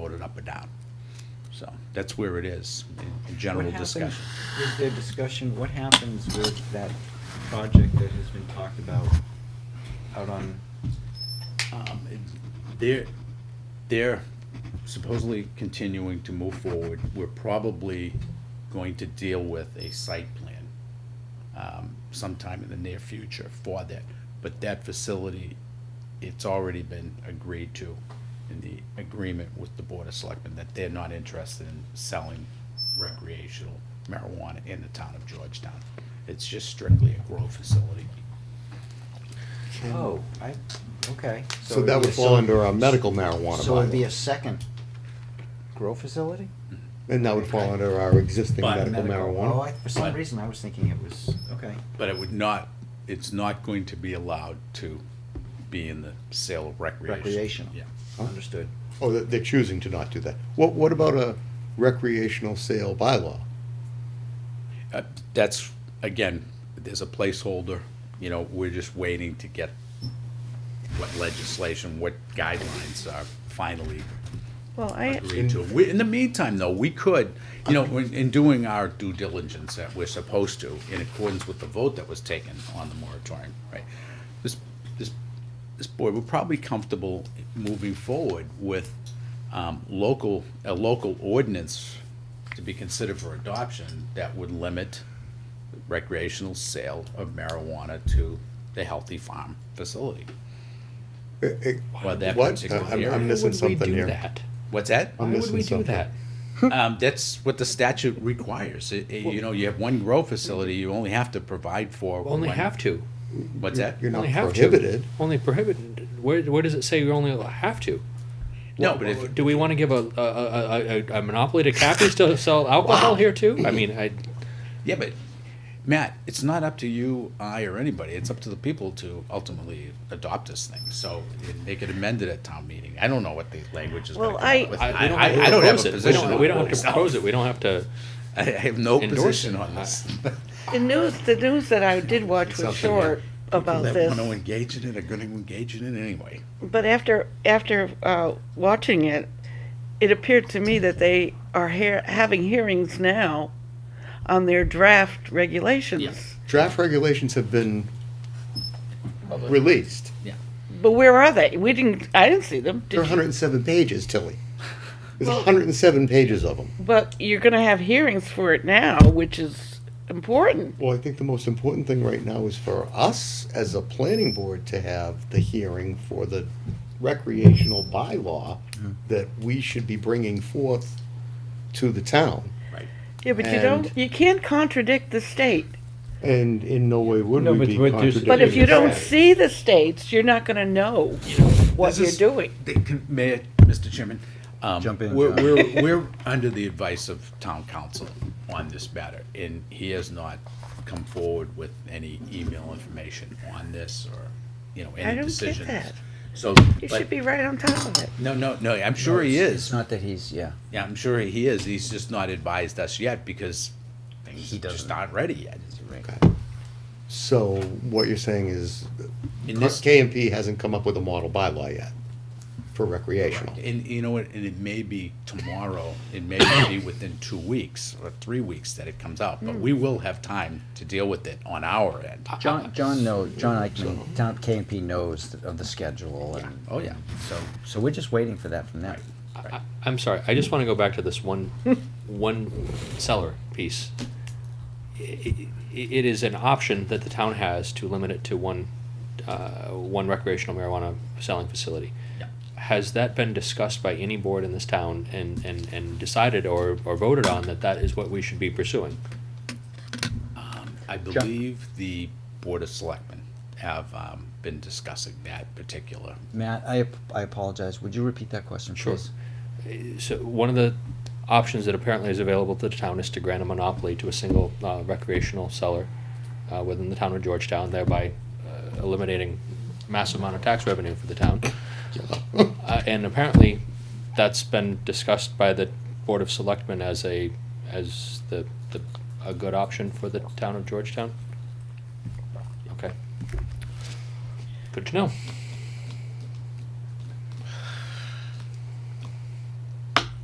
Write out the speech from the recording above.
or down. So that's where it is, in- in general What happens- discussion. Is there discussion, what happens with that project that has been talked about out on, Um, it- They're, they're supposedly continuing to move forward. We're probably going to deal with a site plan um, sometime in the near future for that. But that facility, it's already been agreed to in the agreement with the Board of Selectmen that they're not interested in selling recreational marijuana in the town of Georgetown. It's just strictly a grow facility. oh, I, okay. So it'd that be would a fall sub- under our medical marijuana So it'd be a bylaw. second grow facility? And that would fall under our existing But- medical Oh, marijuana. I, for some But- reason, I was thinking it was, okay. But it would not, it's not going to be allowed to be in the sale of recreation. Recreational. Yeah. Understood. Oh, they- they're choosing to not do that. What, what about a recreational sale bylaw? Uh, That's, again, there's a placeholder, you know, we're just waiting to get what legislation, what guidelines are finally Well, I, agreed to. We- In the meantime, though, we could, you know, in in doing our due diligence that we're supposed to, in accordance with the vote that was taken on the moratorium, right? This, this, this board, we're probably comfortable moving forward with um, local, a local ordinance to be considered for adoption that would limit recreational sale of marijuana to the Healthy Farm facility. Eh, eh, Well, that What? particular I'm- area. I'm missing something here. What's that? I'm missing something. Um, that's what the statute requires. It- it- you know, you have one grow facility, you only have to provide for. Only one- have to. What's that? You're not only have prohibited. To. Only prohibited. Where, where does it say you only have to? No, Wha- but if- do we want to give a a, a, a, a monopoly to Cappies to sell alcohol here too? I mean, I Yeah, but Matt, it's not up to you, I, or anybody. It's up to the people to ultimately adopt this thing. So it- they could amend it at town meeting. I don't know what the language is. gonna Well, come I- up with. I, we don't, I, have to I don't have propose a it. position. We on don't, we don't have to myself. propose it. We don't have to. I have no endorse position it. on this. the news, the news that I did watch was Something, yeah. short about People this. That want to engage in it are going to engage in it anyway. But after, after uh, watching it, it appeared to me that they are hea- having hearings now on their draft regulations. Draft regulations have been released. But where are they? We didn't, I didn't see them. They're Did you? hundred and seven pages, Tilly. There's Well- hundred and seven pages of them. But you're gonna have hearings for it now, which is important. Well, I think the most important thing right now is for us as a planning board to have the hearing for the recreational bylaw that we should be bringing forth to the town. Yeah, but you And- don't, you can't contradict the state. And in no way would No, we but be what there's- contradicting. But if you don't the fact. see the states, you're not gonna know what This you're is- doing. They can, may, I- Mr. Chairman? um, Jump in, We're, John. we're, we're under the advice of town council on this matter, and he has not come forward with any email information on this or, you know, don't any get decisions. that. So, You but, should be right on top of it. no, no, no, I'm sure he It's- It's is. not that he's, yeah. Yeah, I'm sure he is. He's just not advised us yet because things He just doesn't. aren't ready yet. So what you're saying is In this, KMP hasn't come up with a model bylaw yet for recreational. And you know what, and it may be tomorrow, it may be within two weeks or three weeks that it comes out, but we will have time to deal with it on our end. Ah. John, John knows, John Eichman, town KMP knows of the schedule and. Oh, yeah. So, so we're just waiting for that from them. I, I'm sorry. I just want to go back to this one one seller piece. I- i- it is an option that the town has to limit it to one uh, one recreational marijuana selling facility. Yeah. Has that been discussed by any board in this town and, and, and decided or, or voted on that that is what we should be pursuing? I believe the Board of Selectmen have, um, been discussing that particular. Matt, I, ap- I apologize. Would you repeat that question, Sure. please? So one of the options that apparently is available to the town is to grant a monopoly to a single uh, recreational seller uh, within the town of Georgetown, thereby uh, eliminating massive amount of tax revenue for the town. Uh, And apparently, that's been discussed by the Board of Selectmen as a, as the, the, a good option for the town of Georgetown? Okay. Good to know.